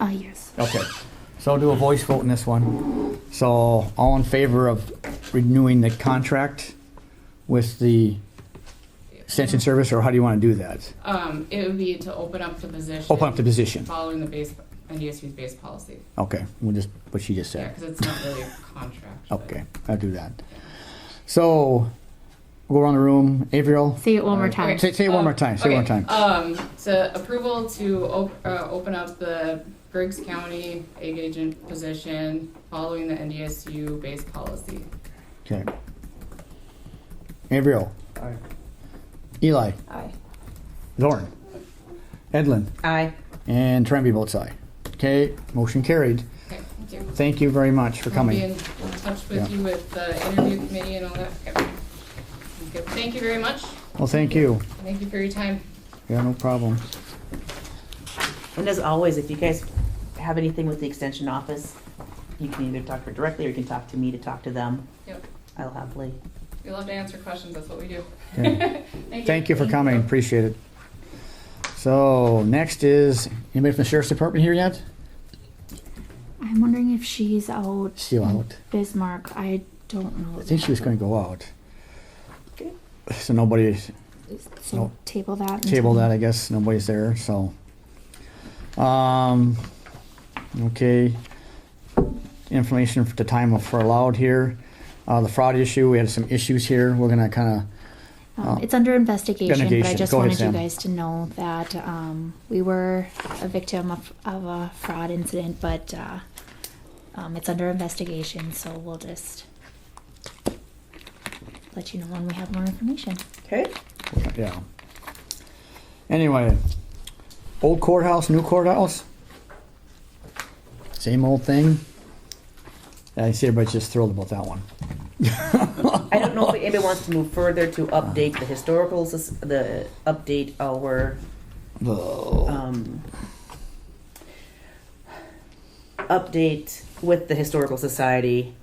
Uh, yes. Okay, so I'll do a voice vote in this one. So, all in favor of renewing the contract with the extension service, or how do you want to do that? Um, it would be to open up the position. Open up the position. Following the base, NDSU's base policy. Okay, we'll just, what she just Yeah, said. because it's not really a contract. but- Okay, I'll do that. So, we'll go around the room. Avriel? Say it one more time. Say, say it one more time, say it one Okay, time. Um, so approval to op- uh, open up the Griggs County egg agent position following the NDSU base policy. Okay. Avriel? Aye. Eli? Aye. Zorn? Edlin? Aye. And Tremby votes aye. Okay, motion carried. Okay, thank you. Thank you very much for I'll be coming. in touch Yeah. with you with the interview committee and all that. Okay. Good. Thank you very much. Well, thank you. Thank you for your time. Yeah, no problem. And as always, if you guys have anything with the extension office, you can either talk to her directly or you can talk to me to talk to them. Yep. I'll happily. We love to answer questions. That's what we do. Okay. Thank you. Thank you for coming, appreciate it. So, next is, anybody from the sheriff's department here yet? I'm wondering if she's out. Still out. Bismarck. I don't know. I think she was gonna go out. Okay. So nobody, So no. table that. until- table that, I guess, nobody's there, so. Um, okay. Information for the time of for allowed here. Uh, the fraud issue, we had some issues here, we're gonna kinda, Um, Oh. it's under investigation, but I Investigation. just Go ahead, wanted you Sam. guys to know that um, we were a victim of, of a fraud incident, but uh, um, it's under investigation, so we'll just let you know when we have more information. Okay. yeah. Anyway, old courthouse, new courthouse? Same old thing? I see everybody's just thrilled about that one. I don't know if anybody wants to move further to update the historical, sus- the, update our, Ugh. um, update with the Historical Society,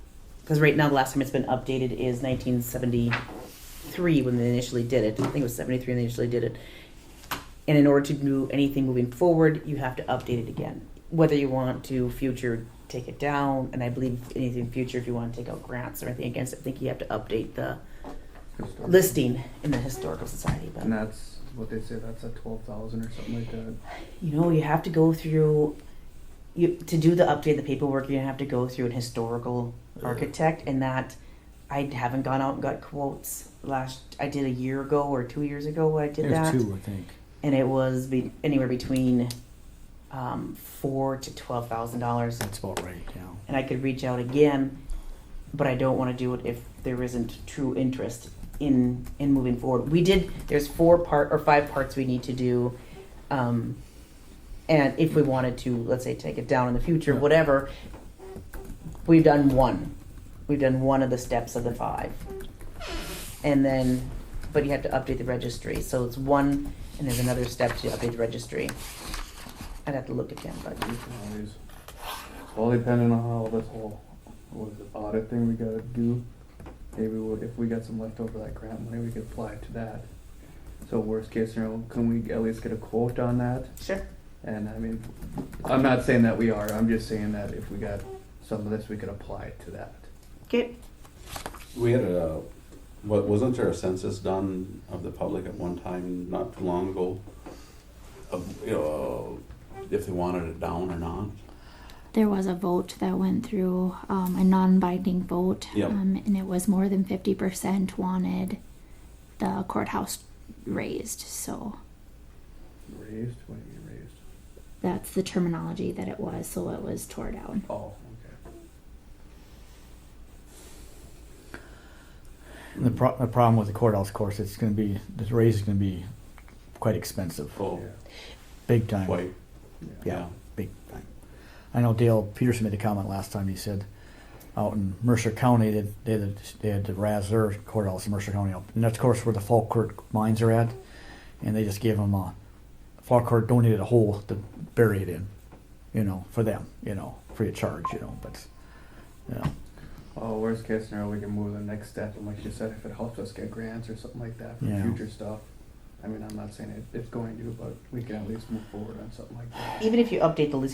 because right now, the last time it's been updated is nineteen seventy-three, when they initially did it. I think it was seventy-three when they initially did it. And in order to do anything moving forward, you have to update it again. Whether you want to future take it down, and I believe anything future, if you want to take out grants or anything against it, I think you have to update the listing in the Historical Society. But And that's what they say, that's at twelve thousand or something like that. you know, you have to go through you to do the update, the paperwork. You have to go through an historical architect, and that I haven't gone out and got quotes. Last I did a year ago or two years ago, when I did There's that, two, I think. and it was be, anywhere between um, four to twelve thousand dollars. That's about right, yeah. And I could reach out again, but I don't want to do it if there isn't true interest in in moving forward. We did. There's four part or five parts we need to do. Um, and if we wanted to, let's say, take it down in the future, Yeah. whatever, we've done one. We've done one of the steps of the five. And then, but you have to update the registry. So it's one, and there's another step to update the registry. I'd have to look again, but You can always, it's all depending on how this whole, what is it, audit thing we gotta do. Maybe we'll, if we got some leftover like grant money, we could apply it to that. So worst case scenario, can we at least get a quote on that? sure. And I mean, I'm not saying that we are, I'm just saying that if we got some of this, we could apply it to that. Okay. We had a, what, wasn't there a census done of the public at one time, not too long ago? Of, you know, if they wanted it down or not? There was a vote that went through, um, a non-binding vote, Yep. um, and it was more than fifty percent wanted the courthouse raised. So Raised, what do you mean raised? that's the terminology that it was. So it was tore down. Oh, okay. The, pro- the problem with the courthouse, of course, it's going to be the raise is going to be quite expensive, Oh, big time. quite, Yeah, yeah. big time. I know Dale Peterson made a comment last time. He said, out in Mercer County, they they had, they had to razz their courthouse in Mercer County, up. and that's of course where the Falkirk mines are at, and they just gave them a Falkirk donated a hole to bury it in, you know, for them, you know, free of charge, you know, but you know, Well, Oh, worst case scenario, we can move to the next step, and like you said, if it helps us get grants or something like that for Yeah. future stuff. I mean, I'm not saying it, it's going to, but we can at least move forward on something like that. Even if you update the list.